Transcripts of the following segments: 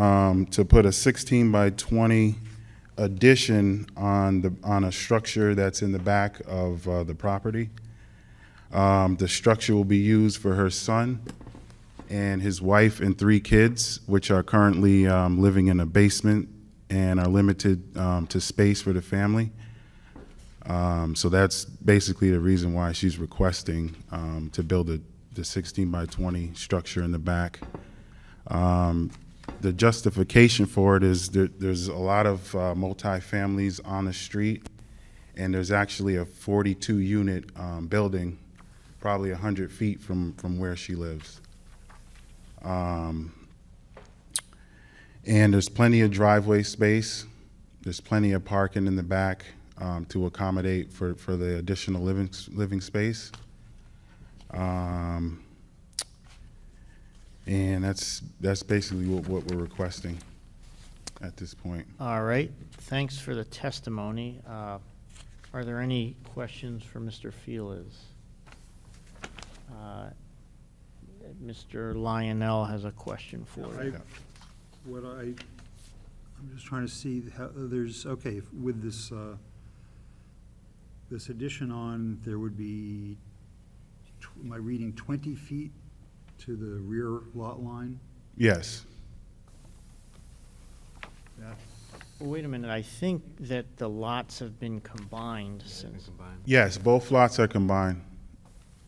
um, to put a 16 by 20 addition on the, on a structure that's in the back of uh, the property. Um, The structure will be used for her son and his wife and three kids, which are currently um, living in a basement and are limited um, to space for the family. Um, So that's basically the reason why she's requesting um, to build a- the 16 by 20 structure in the back. Um, The justification for it is there- there's a lot of uh, multifamilies on the street, and there's actually a 42-unit building, probably 100 feet from from where she lives. Um, And there's plenty of driveway space. There's plenty of parking in the back um, to accommodate for, for the additional living, s- living space. Um, And that's, that's basically what, what we're requesting at this point. All right, thanks for the testimony. Uh, Are there any questions for Mr. Felix? Uh, Mr. Lionel has a question for you. Yeah. What I, I'm just trying to see how, uh, there's, okay, with this, uh, this addition on, there would be, tw- am I reading twenty feet to the rear lot line? Yes, That's Well, Wait a minute, I think that the lots have been combined since, yes, both lots are combined.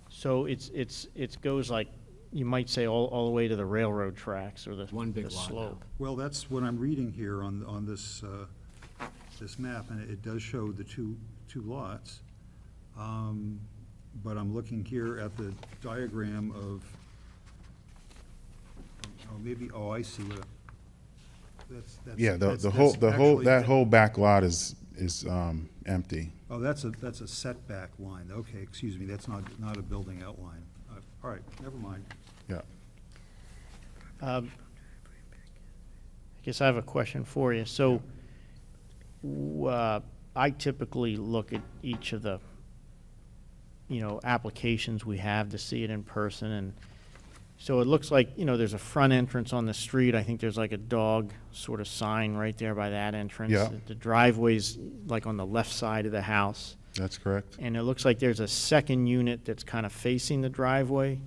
so it's, it's, it goes like, you might say all, all the way to the railroad tracks or the One big the lot now. slope. Well, that's what I'm reading here on, on this, uh, this map, and it does show the two, two lots. Um, But I'm looking here at the diagram of, oh, maybe, oh, I see what, that's, that's. Yeah, the, that's- the whole, that's the whole, actually- that whole back lot is, is um, empty. Oh, that's a, that's a setback line, okay, excuse me, that's not, not a building outline. Uh, All right, never mind. Yeah. Um, I guess I have a question for you. So, w- uh, I typically look at each of the, you know, applications we have to see it in person, and so it looks like, you know, there's a front entrance on the street. I think there's like a dog sort of sign right there by that entrance. Yeah. The driveway's like on the left side of the house. That's correct. And it looks like there's a second unit that's kind of facing the driveway.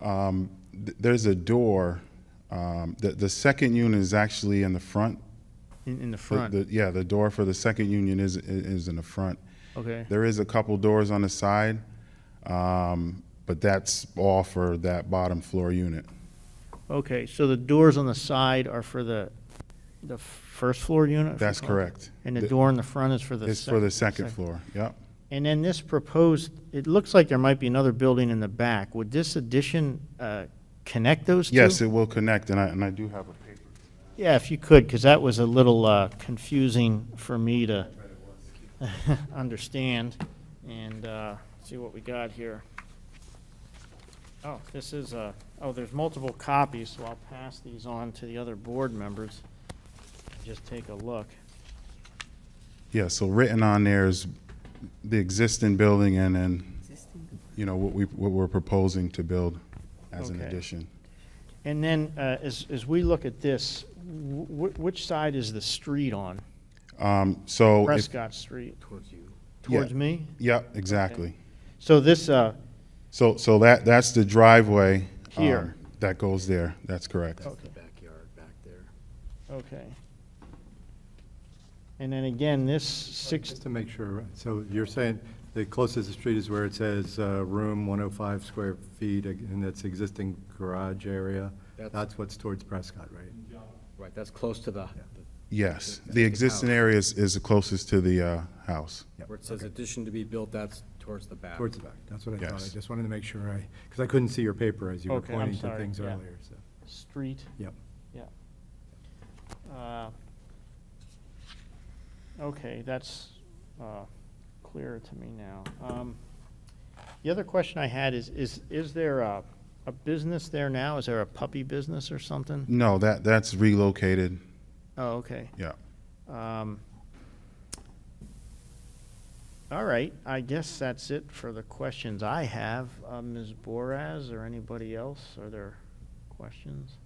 Um, th- There's a door. um, The the second unit is actually in the front. In, in the The- front, the- Yeah, the door for the second union is is in the front. okay? There is a couple doors on the side, um, but that's all for that bottom floor unit. Okay, so the doors on the side are for the, the first floor unit? if you That's call it? correct. Oh. And the Th- door in the front is for the? It's for the sec- second floor, yep. And then this proposed, it looks like there might be another building in the back. Would this addition uh, connect those two? Yes, it will connect, and I and I do have a paper. Yeah, if you could, because that was a little uh, confusing for me to understand and uh, see what we got here. Oh, this is, uh, oh, there's multiple copies, so I'll pass these on to the other board members. Just take a look. Yeah, so written on there is the existing building and then, you know, what we- what we're proposing to build as an Okay. addition. And then, uh, as, as we look at this, wh- wh- which side is the street on? Um, So, if- Prescott Street, Towards you. Yeah. towards me? yep, exactly. So this, uh, So, so that, that's the driveway. um, Here. That goes there, that's correct. That's the backyard back there. okay. And then again, this six, Just to make sure, so you're saying the closest to the street is where it says uh, room 105 square feet, and that's existing garage area? That's- That's what's towards Prescott, right? Right, that's close to the, Yes, the existing area is, is the closest to the uh, house. where it says addition to be built, that's towards the back. Towards the back, that's what I thought. I Yes. just wanted to make sure I, because I couldn't see your paper as you were Okay, I'm pointing to sorry, things yeah. earlier, so, street, yep. uh, okay, that's, uh, clearer to me now. Um, The other question I had is, is, is there a, a business there now? Is there a puppy business or something? No, that, that's relocated, Oh, okay. yeah. Um, All right, I guess that's it for the questions I have. Uh, Ms. Boraz or anybody else, are there questions?